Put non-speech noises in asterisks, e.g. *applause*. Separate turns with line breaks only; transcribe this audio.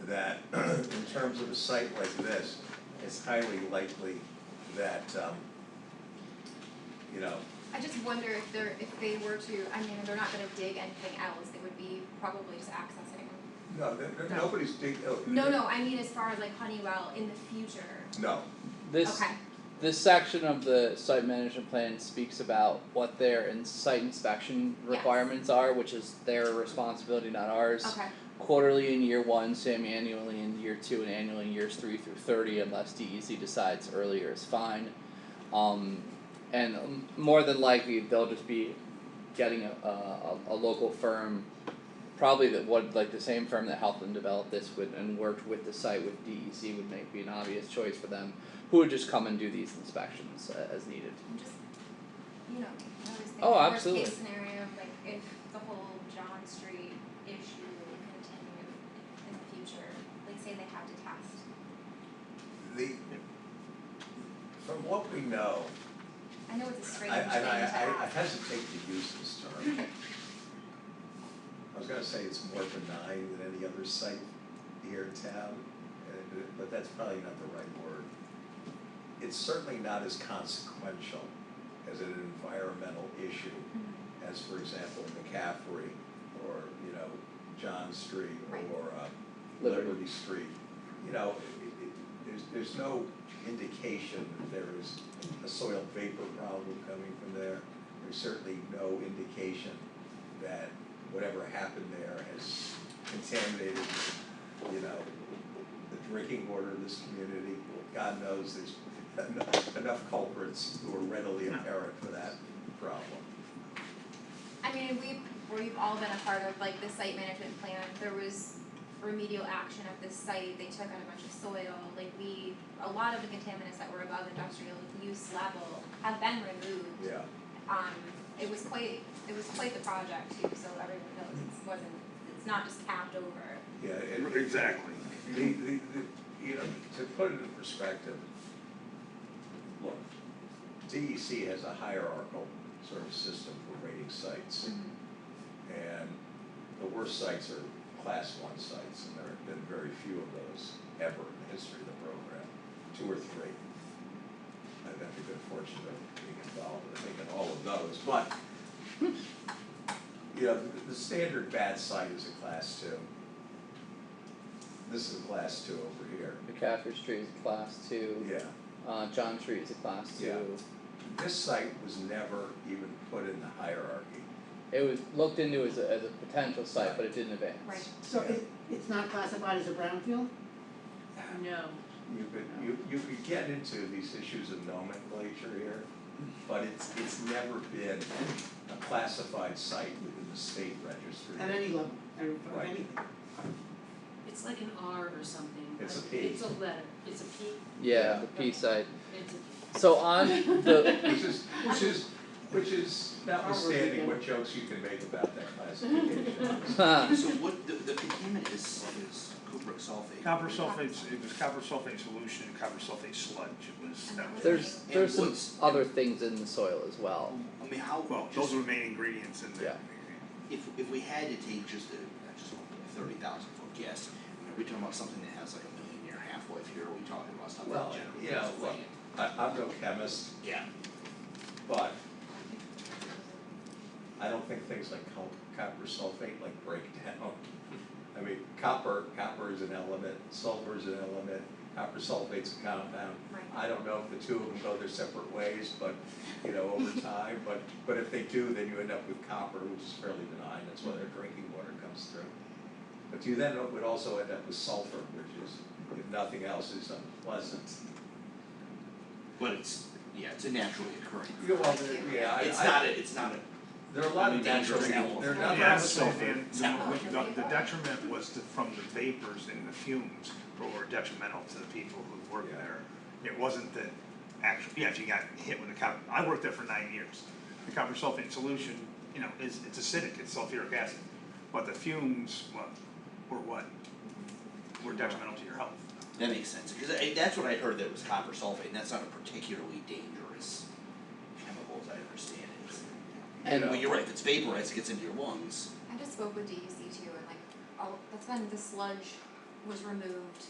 *clears throat* a site like this, it's highly likely that, um, you know,
I just wonder if they're, if they were to, I mean, they're not gonna dig anything else, it would be probably just accessing.
no, th- th- nobody's digging, oh.
No, no, I mean as far as like Honeywell in the future,
No,
This
okay,
this section of the site management plan speaks about what their in site inspection
Yes.
requirements are, which is their responsibility, not ours.
okay,
Quarterly in year one, semi-annually in year two, and annually in years three through thirty, unless DEC decides earlier is fine. Um, and um, more than likely, they'll just be getting a, a, a a local firm, probably that would, like the same firm that helped them develop this would, and worked with the site with DEC would make, be an obvious choice for them, who would just come and do these inspections a- as needed.
I'm just, you know, I was thinking
Oh,
worst
absolutely.
case scenario, like if the whole John Street issue continued in the future, like say they have to test.
the, from what we know,
I know it's a strange
I
thing to
I I I
ask.
hesitate to use this term. I was gonna say it's more benign than any other site here in town, and- but that's probably not the right word. It's certainly not as consequential as an environmental issue
Mhm.
as, for example, McCaffrey or, you know, John Street
Right.
or uh,
Liberty.
Liberty Street. You know, it- it- it- there's, there's no indication that there is a soil vapor problem coming from there. There's certainly no indication that whatever happened there has contaminated, you know, the drinking water of this community. God knows there's *laughs* enough- enough culprits who are readily apparent for that problem.
I mean, we, we've all been a part of like the site management plan, there was remedial action at this site, they took out a bunch of soil, like we, a lot of the contaminants that were above industrial use level have been removed.
Yeah,
Um, it was quite, it was quite the project too, so everyone knows it wasn't, it's not just capped over.
yeah, it,
Exactly.
The, the, the, you know, to put it in perspective, look, DEC has a hierarchical sort of system for rating sites. And the worst sites are class one sites, and there have been very few of those ever in the history of the program, two or three. I've had the good fortune of being involved in making all of those, but, you know, the- the standard bad site is a class two. This is a class two over here.
McCaffrey Street is a class two,
Yeah,
uh, John Street is a class two.
Yeah. this site was never even put in the hierarchy.
It was looked into as a, as a potential site,
Right.
but it didn't advance.
Right.
So it, it's not classified as a brownfield?
No.
You could, you, you could get into these issues of nomenclature here, but it's, it's never been a classified site within the state registry.
At any level, at
Right.
any,
It's like an R or something.
It's
like-
a P.
It's a letter. It's a P.
Yeah, the P site.
It's a
So on the *laughs*
Which is, which is, which is notwithstanding what jokes you can make about that classification.
So what, the, the contaminant is, is cupric sulfate.
Copper sulfate, it was copper sulfate solution, copper sulfate sludge, it was, that was.
There's there's
And
some
what's-
other things in the soil as well.
I mean, how,
Well, oh, those
just,
are the main ingredients in there.
Yeah.
if, if we had to take just a, I just thirty thousand foot guess, I mean, are we talking about something that has like a million year half-life here, are we talking about
*laughs*
something
Well,
that generates?
you know, look, I, I'm no chemist,
Yeah.
but I don't think things like col- copper sulfate like break down. I mean, copper, copper is an element, sulfur is an element, copper sulfate's a compound.
Right.
I don't know if the two of them go their separate ways, but, you know,
*laughs*
over time, but, but if they do, then you end up with copper, which is fairly benign, that's why their drinking water comes through. But you then would also end up with sulfur, which is, if nothing else, is unpleasant.
But it's, yeah, it's a naturally occurring.
You know, well, there- yeah, I,
It's
I-
not a, it's not a,
there are a lot of natural,
Dangerous
there are not
chemicals.
a lot
Yeah,
of
so
sulfur.
and the, the detriment was to, from the vapors and the fumes were detrimental to the people who worked
Yeah.
there. It wasn't the actual, yeah, if you got hit with a copper, I worked there for nine years. The copper sulfate solution, you know, is, it's acidic, it's sulfuric acid, but the fumes, what, were what? Were detrimental to your health.
that makes sense, cause I, that's what I heard that it was copper sulfate, and that's not a particularly dangerous chemical, as I understand it.
And-
uh,
Well, you're right, if it's vaporized, it gets into your lungs.
E I just spoke with DEC too and like, all, that's when the sludge was removed